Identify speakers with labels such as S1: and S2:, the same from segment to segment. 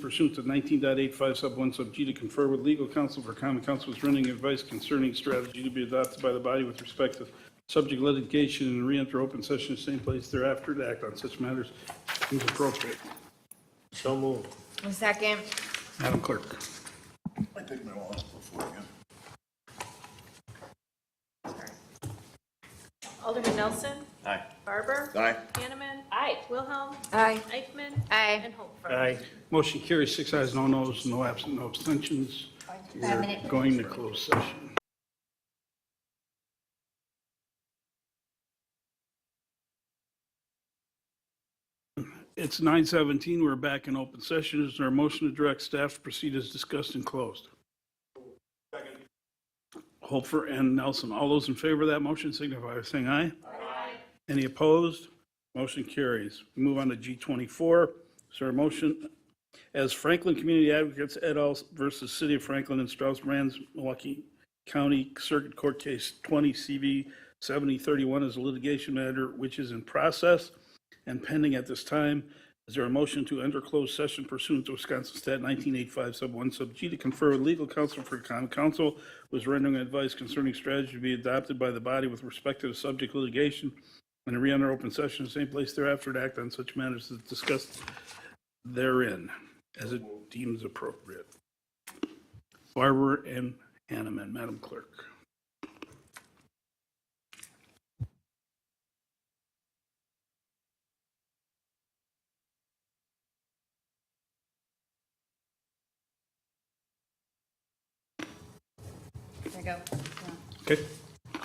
S1: pursuant to 19.85 sub 1 sub G to confer with legal counsel for common counsel's renting advice concerning strategy to be adopted by the body with respect to subject litigation and re-enter open session in the same place thereafter to act on such matters as appropriate.
S2: So moved.
S3: One second.
S1: Madam Clerk.
S4: I take my wallet before again.
S5: Alderman Nelson.
S2: Aye.
S5: Barber.
S4: Aye.
S5: Hanneman. Aye. Wilhelm.
S3: Aye.
S5: Eichmann.
S3: Aye.
S5: And Holfer.
S2: Aye.
S1: Motion carries six ayes, no nos, no absent, no abstentions. We're going to close session. It's 9:17, we're back in open session. Is there a motion to direct staff to proceed as discussed and closed? Holfer and Nelson, all those in favor of that motion signify by saying aye. Aye. Any opposed? Motion carries. We Move on to G24. Is there a motion as Franklin Community Advocates et al. versus City of Franklin and Strauss Brands, Milwaukee County Circuit Court Case 20 CV 7031 is a litigation matter which is in process and pending at this time. Is there a motion to enter closed session pursuant to Wisconsin Stat 1985 Sub 1 Sub G to confer with legal counsel for common counsel was rendering advice concerning strategy to be adopted by the body with respect to the subject litigation and to re-enter open session in the same place thereafter to act on such matters as discussed therein as it deems appropriate. Barber and Hanneman, Madam Clerk.
S3: There you go.
S1: Okay.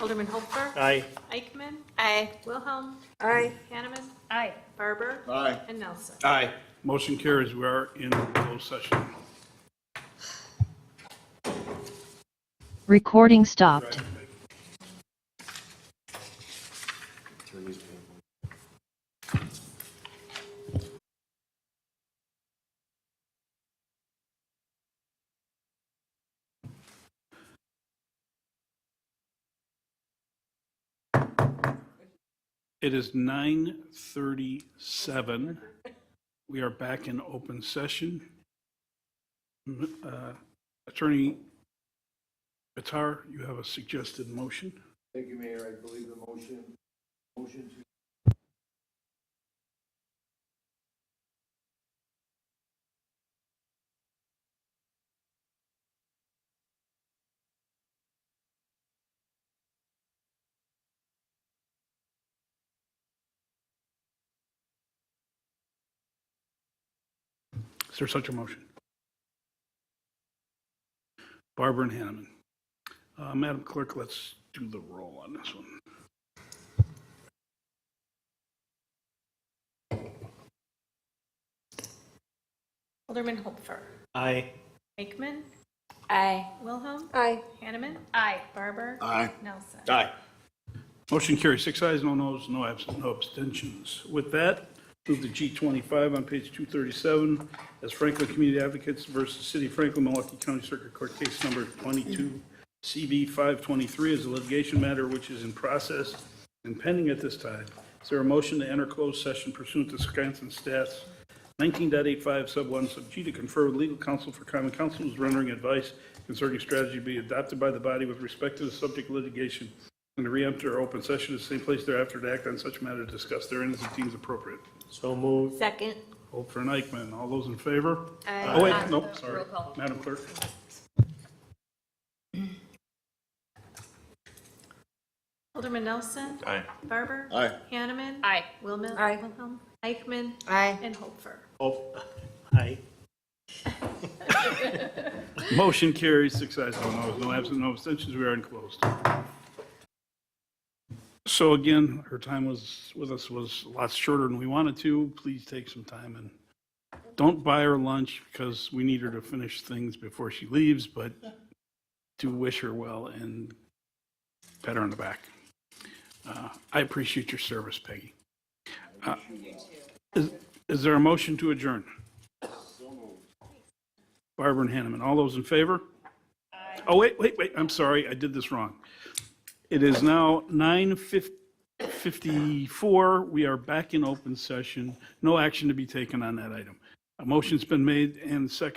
S5: Alderman Holfer.
S2: Aye.
S5: Eichmann. Aye. Wilhelm.
S3: Aye.
S5: Hanneman. Aye. Barber.
S4: Aye.
S5: And Nelson.
S2: Aye.
S1: Motion carries. We are in closed session.
S6: Recording stopped.
S1: It is 9:37. We are back in open session. M- uh, Attorney Bitar, you have a suggested motion?
S4: Thank you, Mayor. I believe the motion, motion to
S1: Is there such a motion? Barber and Hanneman. Uh, Madam Clerk, let's do the roll on this one.
S5: Alderman Holfer.
S2: Aye.
S5: Eichmann.
S3: Aye.
S5: Wilhelm.
S3: Aye.
S5: Hanneman. Aye. Barber.
S4: Aye.
S5: Nelson.
S2: Aye.
S1: Motion carries six ayes, no nos, no absent, no abstentions. With that, move to G25 on page 237 as Franklin Community Advocates versus City of Franklin, Milwaukee County Circuit Court Case Number 22 CB 523 is a litigation matter which is in process and pending at this time. Is there a motion to enter closed session pursuant to Wisconsin Stats 19.85 sub 1 sub G to confer with legal counsel for common counsel who's rendering advice concerning strategy to be adopted by the body with respect to the subject litigation and to re-enter open session in the same place thereafter to act on such matter discussed therein as it deems appropriate.
S2: So moved.
S3: Second.
S1: Hope for an Eichmann. All those in favor?
S3: Aye.
S1: Oh, wait, nope, sorry.
S3: Roll call.
S1: Madam Clerk?
S5: Alderman Nelson.
S2: Aye.
S5: Barber.
S4: Aye.
S5: Hanneman. Aye. Wilhelm.
S3: Aye.
S5: Wilhelm. Eichmann.
S3: Aye.
S5: And Holfer.
S2: Oh, aye.
S1: Motion carries, six ayes, no nos, no absent, no abstentions, we are in closed. So again, her time was, with us was lots shorter than we wanted to. Please take some time and don't buy her lunch because we need her to finish things before she leaves, but do wish her well and pat her on the back. Uh, I appreciate your service, Peggy. Uh, Is is there a motion to adjourn? Barber and Hanneman. All those in favor? Oh, wait, wait, wait, I'm sorry, I did this wrong. It is now 9:54, we are back in open session, no action to be taken on that item. Uh, A motion's been made and seconded